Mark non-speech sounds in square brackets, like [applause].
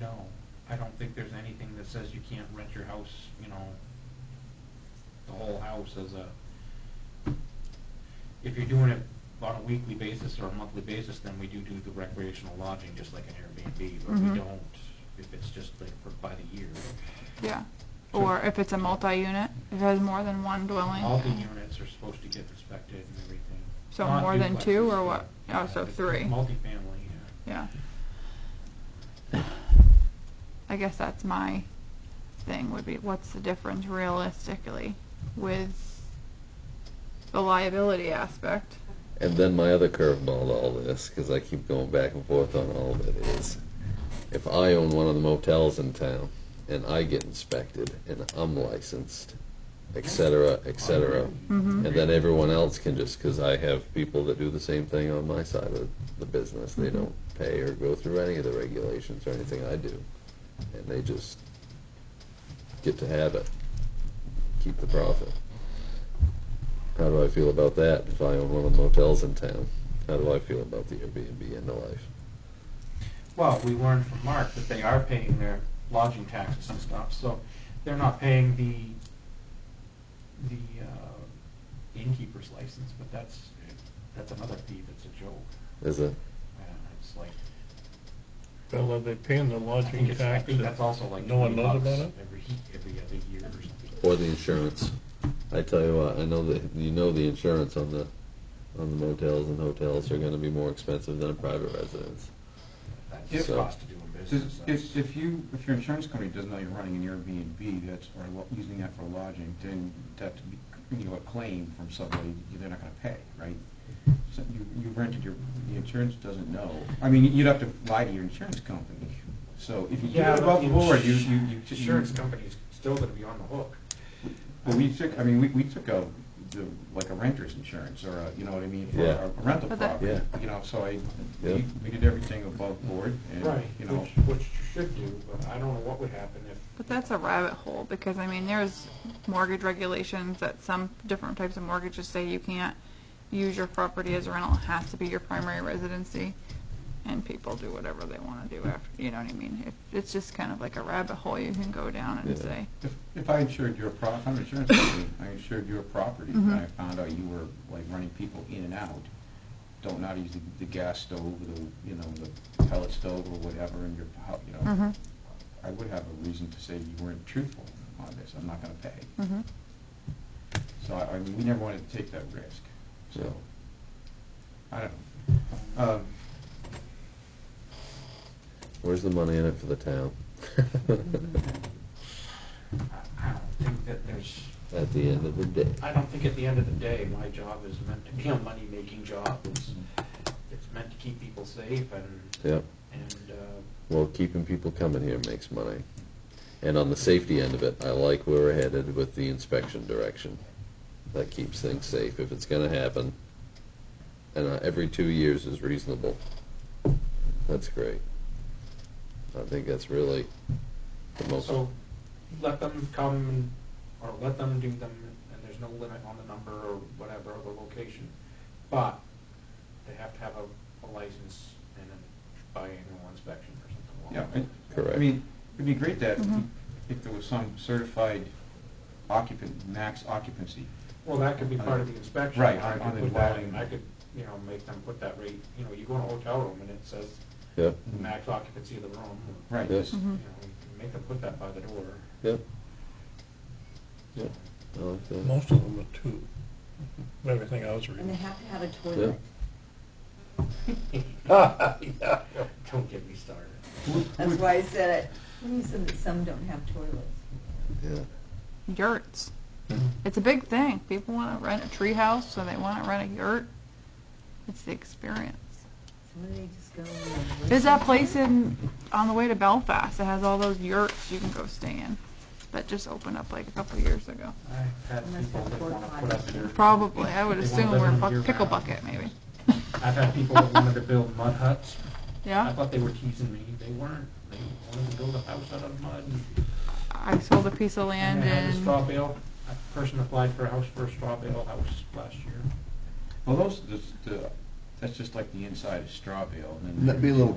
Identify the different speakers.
Speaker 1: No, I don't think there's anything that says you can't rent your house, you know, the whole house as a, if you're doing it on a weekly basis or a monthly basis, then we do do the recreational lodging, just like an Airbnb, but
Speaker 2: Mhm.
Speaker 1: we don't, if it's just like for, by the year.
Speaker 2: Yeah. Or if it's a multi-unit, if it has more than one dwelling.
Speaker 1: All the units are supposed to get inspected and everything.
Speaker 2: So
Speaker 1: Not
Speaker 2: more than two,
Speaker 1: duplexes,
Speaker 2: or what?
Speaker 1: but-
Speaker 2: Oh, so
Speaker 1: Yeah, it's
Speaker 2: three.
Speaker 1: Multifamily, yeah.
Speaker 2: Yeah. I guess that's my thing would be what's the difference realistically with the liability aspect?
Speaker 3: And then my other curveball to all this, because I keep going back and forth on all of it, is if I own one of the motels in town and I get inspected and I'm licensed, et cetera, et cetera,
Speaker 2: Mm-hmm.
Speaker 3: and then everyone else can just, because I have people that do the same thing on my side of the business, they don't pay or go through any of the regulations or anything I do, and they just get to have it, keep the profit. How do I feel about that if I own one of the motels in town? How do I feel about the Airbnb end of life?
Speaker 1: Well, we learned from Mark that they are paying their lodging taxes and stuff, so they're not paying the, the uh, innkeeper's license, but that's, that's another fee that's a joke.
Speaker 3: Is it?
Speaker 1: Uh, It's like,
Speaker 4: Well, are they paying the
Speaker 1: I think
Speaker 4: lodging
Speaker 1: it's, I
Speaker 4: tax?
Speaker 1: think that's also like
Speaker 4: No one
Speaker 1: twenty
Speaker 4: knows
Speaker 1: bucks
Speaker 4: about it?
Speaker 1: every, every other year or something.
Speaker 3: Or the insurance? I tell you what, I know that, you know the insurance on the, on the motels and hotels are gonna be more expensive than a private residence.
Speaker 1: That's just
Speaker 3: So-
Speaker 1: cost to doing business.
Speaker 5: Does-
Speaker 1: that's-
Speaker 5: If, if you, if your insurance company doesn't know you're running an Airbnb that's, or lo- using that for lodging, then that, you know, a claim from somebody, they're not gonna pay, right? So you, you rented your, the insurance doesn't know. I mean, you'd have to lie to your insurance company. So if you do
Speaker 1: Yeah,
Speaker 5: it
Speaker 1: but
Speaker 5: above
Speaker 1: the
Speaker 5: board, you,
Speaker 1: ins-
Speaker 5: you, you.
Speaker 1: Insurance company's still gonna be on the hook.
Speaker 5: Well, we took, I mean, we, we took a, the- like a renter's insurance or a, you know what I mean? for
Speaker 3: Yeah.
Speaker 5: A rental
Speaker 2: But that-
Speaker 5: property.
Speaker 3: Yeah.
Speaker 5: You know, so I,
Speaker 3: Yeah.
Speaker 5: we, we did everything above board and, you know.
Speaker 1: Which, which you should do, but I don't know what would happen if
Speaker 2: But that's a rabbit hole because I mean there's mortgage regulations that some different types of mortgages say you can't use your property as a rental. It has to be your primary residency. And people do whatever they want to do after, you know what I mean? It, it's just kind of like a rabbit hole you can go down and
Speaker 3: Yeah.
Speaker 2: say,
Speaker 5: If, if I insured your prop, I'm an insurance company, I insured your property, and I found out you were like running people in and out, don't not use the, the gas stove, or the, you know, the pellet stove or whatever in your, hou- you know,
Speaker 2: Mhm.
Speaker 5: I would have a reason to say you weren't truthful on this, I'm not gonna pay.
Speaker 2: mm-hmm.
Speaker 5: So I, I mean, we never wanted to take that risk, so, I don't know. Um,
Speaker 3: Where's the money in it for the town?
Speaker 1: I- I don't think that there's,
Speaker 3: [laughs] At the end of the day.
Speaker 1: I don't think at the end of the day, my job is meant to be a money-making job. It's, it's meant to keep people safe and,
Speaker 3: Yep.
Speaker 1: and, uh,
Speaker 3: Well, keeping people coming here makes money. And on the safety end of it, I like where we're headed with the inspection direction. That keeps things safe if it's gonna happen. And uh, every two years is reasonable. That's great. I think that's really the most,
Speaker 1: so let them come and, or let them do them, and there's no limit on the number or whatever, or the location. But they have to have a, a license and a biannual inspection or something along
Speaker 5: Yeah,
Speaker 1: those
Speaker 5: I-
Speaker 1: lines.
Speaker 3: Correct.
Speaker 5: I mean, it'd be great that,
Speaker 2: Mhm.
Speaker 5: if there was some certified occupant, max occupancy
Speaker 1: Well, that could be part of the inspection.
Speaker 5: Right,
Speaker 1: I
Speaker 5: on
Speaker 1: could
Speaker 5: the
Speaker 1: put that,
Speaker 5: dwelling.
Speaker 1: I could, you know, make them put that rate, you know, you go in a hotel room and it says
Speaker 3: yep,
Speaker 1: the max occupancy of the room. or,
Speaker 5: Mm-hmm. Right,
Speaker 3: Yeah.
Speaker 5: just,
Speaker 1: You know, you can make them put that by the door. [laughs]
Speaker 3: yep. Yep, I like that.
Speaker 4: Most of them are two, from everything I was
Speaker 6: And they
Speaker 4: reading.
Speaker 6: have to have a toilet.
Speaker 1: Don't get me started.
Speaker 6: That's why I said it. What do you say that some don't have toilets?
Speaker 3: Yeah,
Speaker 2: yurts. It's a big thing. People want to rent a tree house, so they want to rent a yurt. It's the experience.
Speaker 6: Some of they just go and...
Speaker 2: There's that place in on the way to Belfast that has all those yurts you can go stay in that just opened up like a couple years ago.
Speaker 1: I've had
Speaker 6: Unless
Speaker 1: people
Speaker 6: it's
Speaker 1: that
Speaker 6: porta
Speaker 1: wanna put
Speaker 6: potty.
Speaker 1: up their.
Speaker 2: Probably, I would
Speaker 1: They wanna
Speaker 2: assume
Speaker 1: live
Speaker 2: we're
Speaker 1: in
Speaker 2: bu-
Speaker 1: year
Speaker 2: pickle
Speaker 1: round.
Speaker 2: bucket maybe.
Speaker 1: I've had people that wanted to build mud huts. I
Speaker 2: Yeah,
Speaker 1: thought they were teasing me. They weren't. They wanted to build a house out of mud.
Speaker 2: I sold a piece of land
Speaker 1: And I had a straw
Speaker 2: in.
Speaker 1: bale. A person applied for a house for a straw bale house last year.
Speaker 5: well, those, the, the, that's just like the inside of straw bale, and then.
Speaker 3: That'd be a little